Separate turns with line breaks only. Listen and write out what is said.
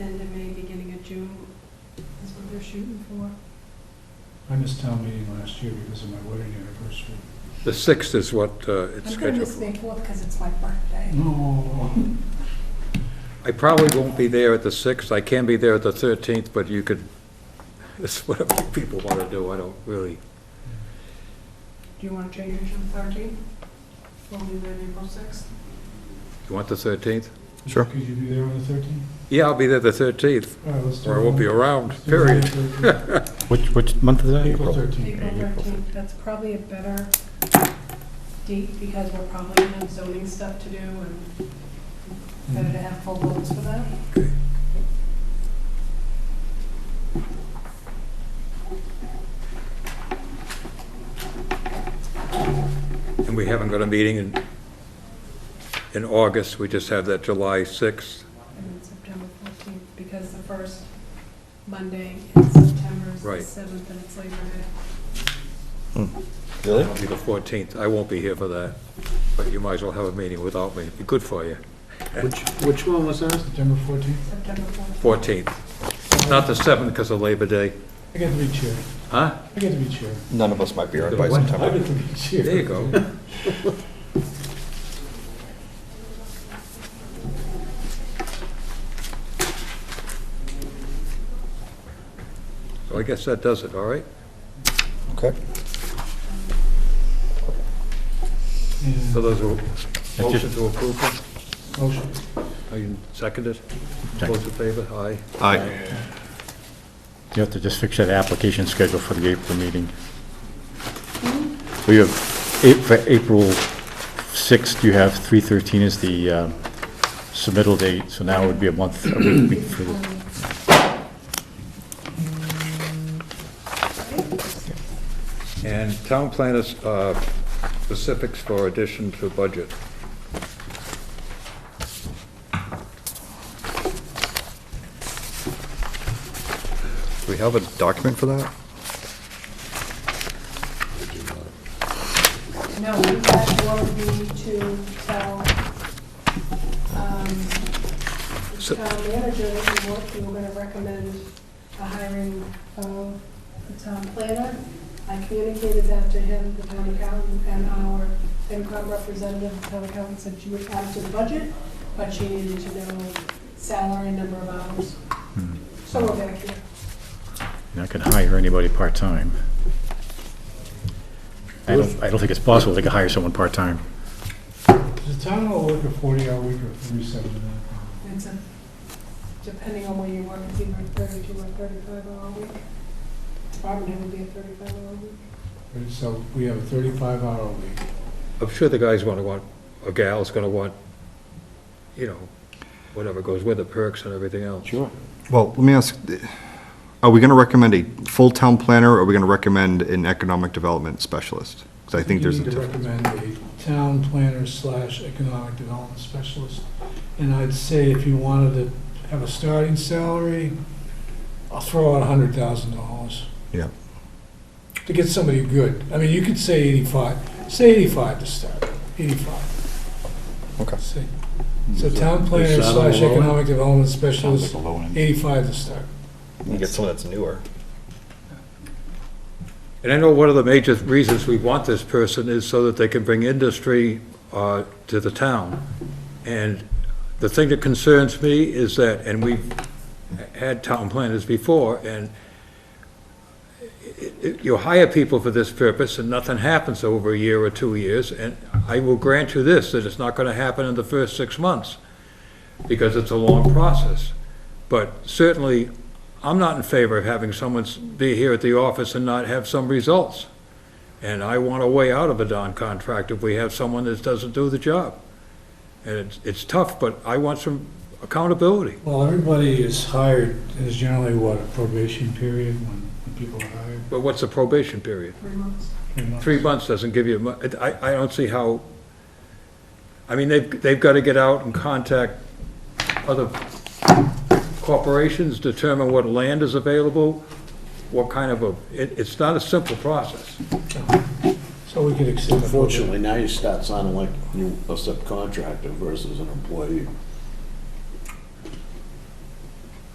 End of May, beginning of June is what they're shooting for.
I missed town meeting last year because of my wedding anniversary.
The 6th is what uh, it's
I'm gonna
scheduled
miss
for.
May fourth because it's my birthday.
No,
I probably won't be there at the 6th, I can be there at the 13th, but you could, it's whatever you people want to do, I don't really,
Do you want to change it to the 13th? We'll do that April 6th.
you want the 13th?
Sure.
Could you be there on the thirteenth?
Yeah, I'll be there the 13th,
All right, let's do it.
or I won't be around,
Let's do it on
period.
the 13th.
Which, which month is that?
April thirteenth.
April
April
13th, that's probably a better date because we're probably going to have zoning stuff to do and
Mm-hmm.
better to have full votes for that.
And we haven't got a meeting in, in August, we just have that July 6th.
And then September 14th, because the first Monday in September is the
Right.
7th and it's Labor Day.
Really?
It'll be the 14th, I won't be here for that, but you might as well have a meeting without me, it'd be good for you.
Which, which one was that?
September fourteenth.
September 14th.
14th, not the 7th because of Labor Day,
I get to be chair.
huh?
I get to be chair.
None of us might be around by
What?
I
September.
get to be chair.
There you go. So I guess that does it, all right?
Okay.
Yeah.
So those are motion to approve them?
Motion.
Are you seconded? Those in favor, aye.
Aye.
You have to just fix that application schedule for the April meeting. We have, A- for April 6th, you have 313 is the uh, submittal date, so now it would be a month, a week week for the
And town planners, uh, specifics for addition to budget.
Do we have a document for that?
No, we had Laura to tell, um, the
So-
town manager that we were, we were gonna recommend the hiring of the town planner. I communicated that to him, the town accountant, and our FinCom representative, the town accountant said she would add to the budget, but she needed to know salary, number of hours.
Hmm.
So we're back here.
You're not going to hire anybody part-time. I don't, I don't think it's possible they could hire someone part-time.
Does the town all work a forty-hour week or forty-seven and a half?
It's a, depending on where you work, it's either thirty-two or thirty-five hour a week. Department head would be a thirty-five hour week.
Right, So we have a thirty-five hour week.
I'm sure the guy's gonna want, or gal's gonna want, you know, whatever goes with the perks and everything else.
Sure.
Well, let me ask, are we gonna recommend a full town planner, or are we gonna recommend an economic development specialist? Because I think there's a
You need to
difference.
recommend a town planner slash economic development specialist. And I'd say if you wanted to have a starting salary, I'll throw out a hundred thousand dollars.
Yeah.
To get somebody good. I mean, you could say eighty-five, say eighty-five to start, eighty-five.
Okay.
Say- So town planner
Hmm. that a
slash
low end?
economic development
Sounds like
specialist,
a low end.
eighty-five to start.
You get someone that's newer.
And I know one of the major reasons we want this person is so that they can bring industry uh, to the town. And the thing that concerns me is that, and we've had town planners before, and it- it- you hire people for this purpose and nothing happens over a year or two years. And I will grant you this, that it's not going to happen in the first six months, because it's a long process. But certainly, I'm not in favor of having someone s- be here at the office and not have some results. And I want a way out of a Don contract if we have someone that doesn't do the job. And it's, it's tough, but I want some accountability.
Well, everybody is hired, is generally what, a probation period when when people are hired?
But what's the probation period?
Three months.
Three months.
Three months doesn't give you, mu- I, I don't see how, I mean, they've, they've got to get out and contact other corporations, determine what land is available, what kind of a, it, it's not a simple process.
So we could extend the.
Unfortunately, now you start sounding like you a subcontractor versus an employee.